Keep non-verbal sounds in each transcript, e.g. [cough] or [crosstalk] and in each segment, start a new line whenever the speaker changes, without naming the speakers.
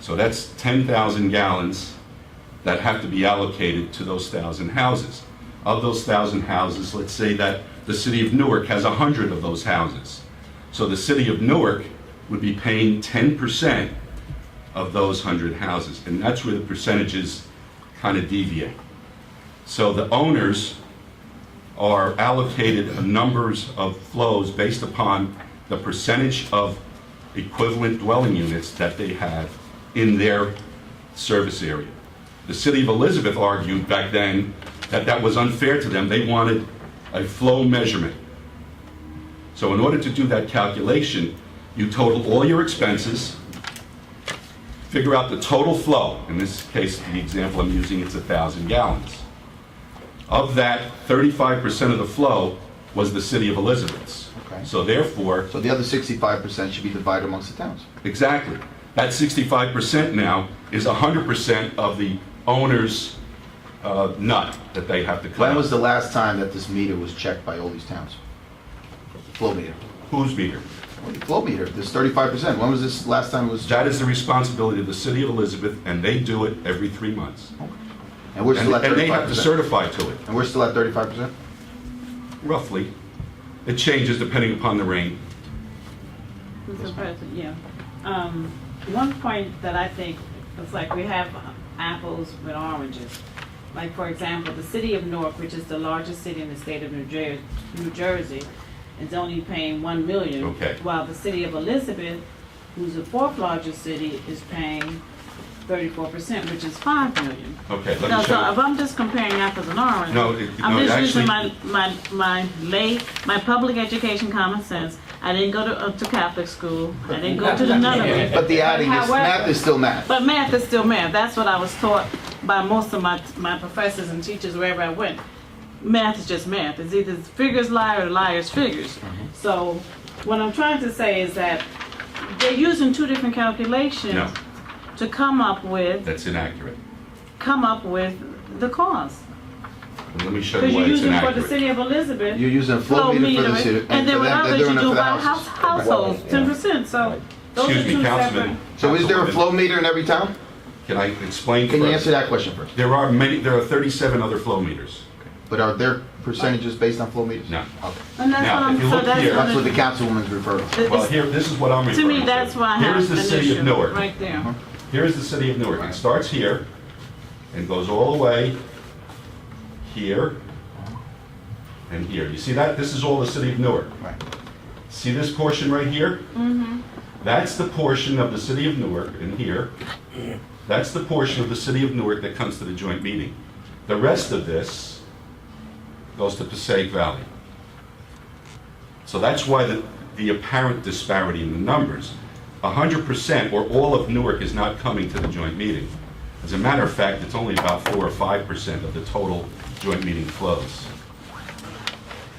So that's 10,000 gallons that have to be allocated to those 1,000 houses. Of those 1,000 houses, let's say that the city of Newark has 100 of those houses. So the city of Newark would be paying 10% of those 100 houses. And that's where the percentages kind of deviate. So the owners are allocated a numbers of flows based upon the percentage of equivalent dwelling units that they have in their service area. The city of Elizabeth argued back then that that was unfair to them. They wanted a flow measurement. So in order to do that calculation, you total all your expenses, figure out the total flow. In this case, the example I'm using, it's 1,000 gallons. Of that, 35% of the flow was the city of Elizabeth's.
Okay.
So therefore,
So the other sixty-five percent should be divided amongst the towns.
exactly, that 65% now is 100% of the owner's uh, nut that they have to
When
collect.
was the last time that this meter was checked by all these towns? Flow meter.
Whose meter?
Well, the Flow meter, this thirty-five percent, when was this last time it was? checked?
That is the responsibility of the city of Elizabeth, and they do it every three months.
And we're
And
still at
and they have
thirty-five
to
percent?
certify to it,
And we're still at thirty-five percent?
roughly. It changes depending upon the rain.
Mr. President, yeah. Um, one point that I think, it's like we have apples with oranges. Like, for example, the city of Newark, which is the largest city in the state of New Jer- New Jersey, is only paying one million.
Okay.
While the city of Elizabeth, who's the fourth largest city, is paying thirty-four percent, which is five million.
Okay, let
No,
me
so uh,
show
if
you.
I'm just comparing apples and oranges.
No, it- no,
I'm just
it
using
actually-
my, my, my lay, my public education common sense. I didn't go to, uh, to Catholic school. I didn't go to the nunnery.
But the adding is,
However-
math is still math.
But math is still math. That's what I was taught by most of my, my professors and teachers wherever I went. Math is just math. It's either figures lie or liars figures.
Mm-hmm.
So what I'm trying to say is that they're using two different
No,
calculations to come up with,
that's inaccurate.
come up with the cost.
Let me show
Because
you why
you're
it's
using for the
inaccurate.
city of Elizabeth.
You're using a flow
Flow
meter for the
meter,
city.
and
for
then what
them,
others
they're doing it
you
for
do
the
by
houses.
house, households, ten percent, so those are
Excuse
two
me,
separate.
Councilman.
So is there a
Councilwoman,
flow meter in every town?
Can I explain
Can you answer
further?
that question first?
There are many, there are 37 other flow meters.
But are there percentages based on flow meters?
No.
Okay.
And that's
Now,
what
if you
I'm, so
look here-
That's
that's
what
what
the councilwoman's referring to.
it-
Well,
it's-
here, this is what I'm
to
referring to.
me, that's why I
Here is
have
the
an
city of
issue,
Newark. Uh-huh.
right there.
Here is the city of Newark. It starts here and goes all the way here and here. You see that? This is all the city of Newark.
Right.
See this portion right here? Mm-hmm. That's the portion of the city of Newark in here. That's the portion of the city of Newark that comes to the joint meeting. The rest of this goes to Passaic Valley. So that's why the, the apparent disparity in the numbers. hundred percent or all of Newark is not coming to the joint meeting. As a matter of fact, it's only about four or five percent of the total joint meeting flows.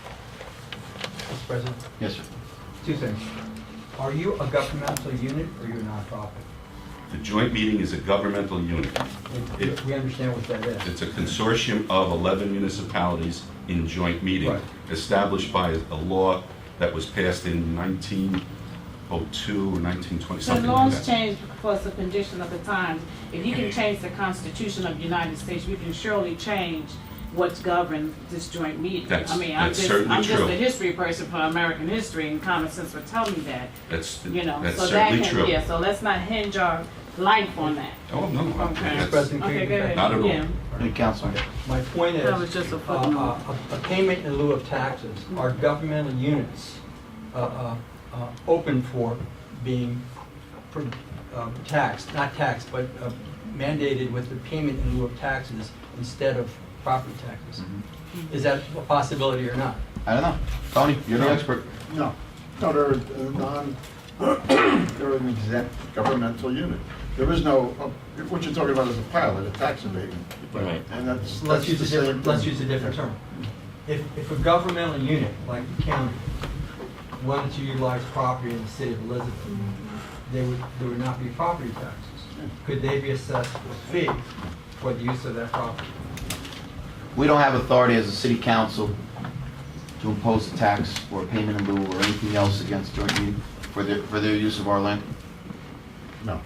Mr. President,
Yes, sir.
two things. Are you a governmental unit or you're a nonprofit?
The joint meeting is a governmental unit.
We- We understand what that is.
It's a consortium of 11 municipalities in joint meeting,
Right.
established by a law that was passed in 1902 or 1920,
The
something
laws
like that.
change because the condition of the times. If you can change the Constitution of the United States, you can surely change what's governed this joint meeting.
That's-
I mean, I'm
that's
just,
certainly
I'm just
true.
a history person for American history, and common sense would tell me that,
That's,
you know.
that's
So that
certainly
can-
true.
Yeah, so let's not hinge our life on that.
Oh, no, no,
Okay.
that's-
President, can you
Okay,
go
go
back?
ahead.
Not at all.
Yeah.
Any councilman?
My point is,
That was just a
uh,
footnote.
uh, a- a payment in lieu of taxes, are governmental units uh, uh, uh, open for being pr- uh, taxed, not taxed, but uh, mandated with the payment in lieu of taxes instead of property taxes? Is that a possibility or not?
I don't know. Tony, you're the expert.
No, no, they're a non, [coughs] they're an exempt governmental unit. There is no, uh, what you're talking about is a pilot, a tax abatement.
Right.
And that's.
Let's
that's
use a
the same
different, let's
thing.
use a different term. If, if a governmental unit, like the county, wanted to utilize property in the city of Elizabeth, they would, there would not be property taxes. Could they be assessed a fee for the use of that property?
We don't have authority as a city council to impose a tax or a payment in lieu or anything else against joint meeting for their, for their use of our land.
No.